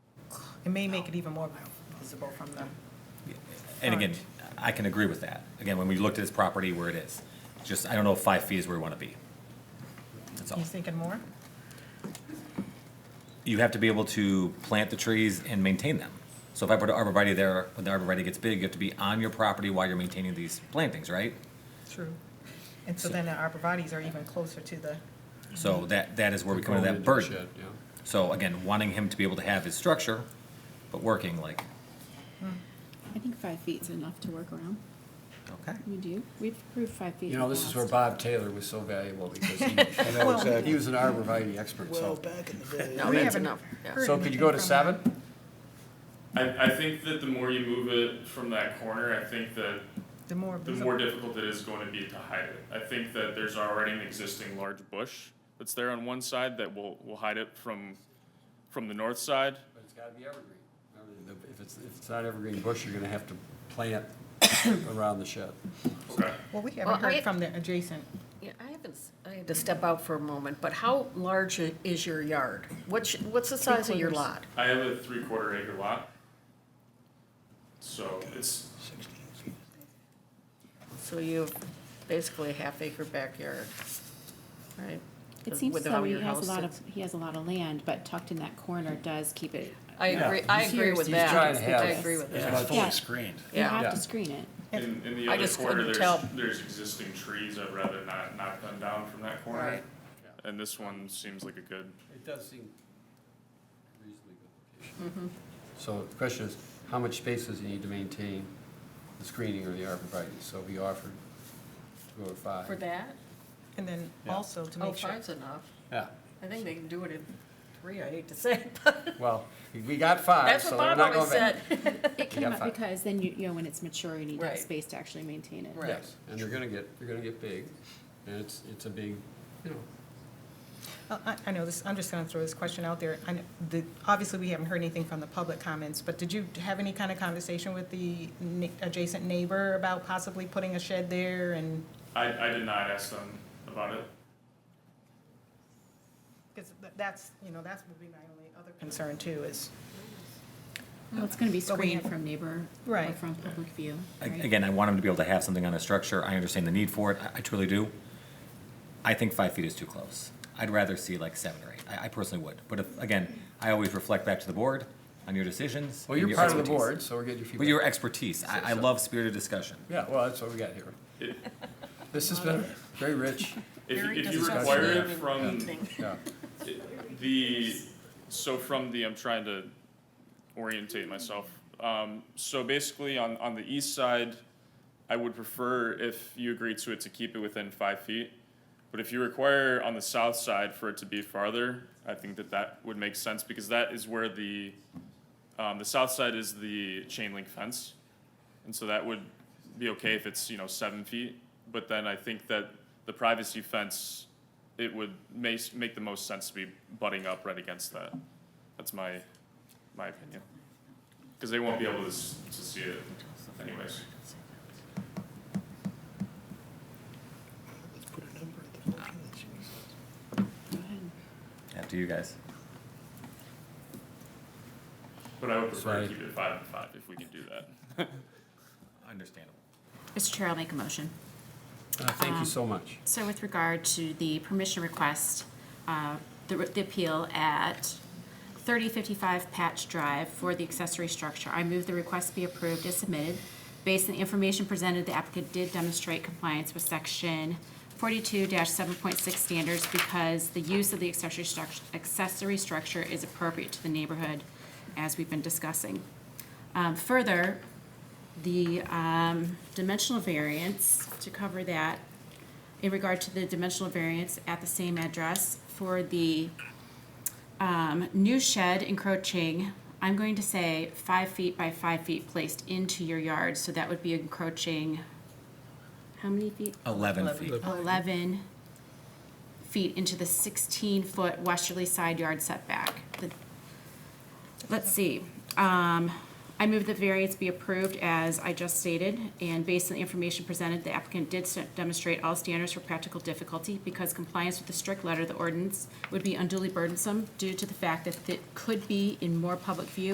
It may make it even more visible from the, And again, I can agree with that. Again, when we looked at this property where it is, just, I don't know if five feet is where we want to be. That's Oh. all. he's thinking more? You have to be able to plant the trees and maintain them. So if I put an arborvitae there, when the arborvitae gets big, you have to be on your property while you're maintaining these plantings, right? True. And so then the arborvitae's are even closer to the, So that, that is where we come into that burden. So again, wanting him to be able to have his structure, but working like, I think five feet's enough to work around. okay. We do. We've approved five feet. You know, this is where Bob Taylor was so valuable because he, I know he exactly. was an arborvitae expert, so. Well, back in the day. No, We that's haven't enough, yeah. heard So could you go to anything from her. seven? I, I think that the more you move it from that corner, I think that the more the more visible. difficult it is going to be to hide it. I think that there's already an existing large bush that's there on one side that will, will hide it from, from the north side. But it's gotta be evergreen. Remember, If it's, if it's not evergreen bush, you're gonna have to plant around the shed. Okay. Well, we Well, haven't I- heard from the adjacent, Yeah, I haven't, s- I had to step out for a moment, but how large i- is your yard? What's, what's the size of your lot? I have a three quarter acre lot. So it's, So you have basically a half acre backyard, right? It seems as With though how he your has a house lot of, sits. he has a lot of land, but tucked in that corner does keep it, I Yeah. agree, I He's agree here, with he's that. trying to have- I agree with Yeah. that, It's fully screened. you yeah. have Yeah. to screen it. in, in the I other just corner, couldn't there's, tell. there's existing trees. I'd rather not knock them down from that corner. Right. And this one seems like a good, It does seem reasonably good. Mm-hmm. location. So the question is, how much space does he need to maintain the screening or the arborvitae? So he offered to go to five. For that? and then Yeah. also to Oh, make sure. five's enough. Yeah, I think they can do it in three, I hate to say, it, but well, we got five, that's so what we're Bob not always going back. said. It Yeah, came up five. because then you, you know, when it's mature, you need that Right. space to actually maintain it. Right. Yes, and they're gonna get, they're gonna get big, and it's, it's a big, you know, Uh, I, I know this, I'm just gonna throw this question out there. I, kn- the, obviously, we haven't heard anything from the public comments, but did you have any kind of conversation with the ne- adjacent neighbor about possibly putting a shed there and? I, I did not ask them about it. Because that's, you know, that's would be my only other concern too, is. Well, it's gonna be But we screened have- from neighbor or Right. from public view, A- right? Again, I want him to be able to have something on a structure. I understand the need for it. I- I truly do. I think five feet is too close. I'd rather see like seven or eight. I, I personally would. But if, again, I always reflect back to the board on your decisions. well, and you're your part of the expertise. board, so we're getting your But your feedback. expertise. I, I So- so- love spirited discussion. Yeah, well, that's what we got here. It- This has been very rich, If, Very if you disgusting. require it from Evening. yeah. The, so from the, I'm trying to orientate myself. Um, so basically on, on the east side, I would prefer if you agree to it to keep it within five feet. But if you require on the south side for it to be farther, I think that that would make sense because that is where the, um, the south side is the chain link fence. And so that would be okay if it's, you know, seven feet. But then I think that the privacy fence, it would make, make the most sense to be butting up right against that. That's my, my opinion. Because they won't be able to, s- to see it anyways. Put a number at the bottom, that's what Go ahead. After you guys. But I would prefer Right. to keep it five and five if we can do that. Understandable. Mr. Chair, I'll make a motion. Uh, Thank you so much. So with regard to the permission request, uh, the the appeal at 3055 Patch Drive for the accessory structure, I move the request be approved as submitted. Based on the information presented, the applicant did demonstrate compliance with Section 42-7.6 standards because the use of the accessory structure, accessory structure is appropriate to the neighborhood, as we've been discussing. Um, Further, the um, dimensional variance, to cover that, in regard to the dimensional variance at the same address for the um, new shed encroaching, I'm going to say five feet by five feet placed into your yard, so that would be encroaching, how many feet? Eleven feet. 11 feet into the 16-foot westerly side yard setback. The- Let's see. Um, I move the variance be approved as I just stated, and based on the information presented, the applicant did s- demonstrate all standards for practical difficulty because compliance with the strict letter of the ordinance would be unduly burdensome due to the fact that it could be in more public view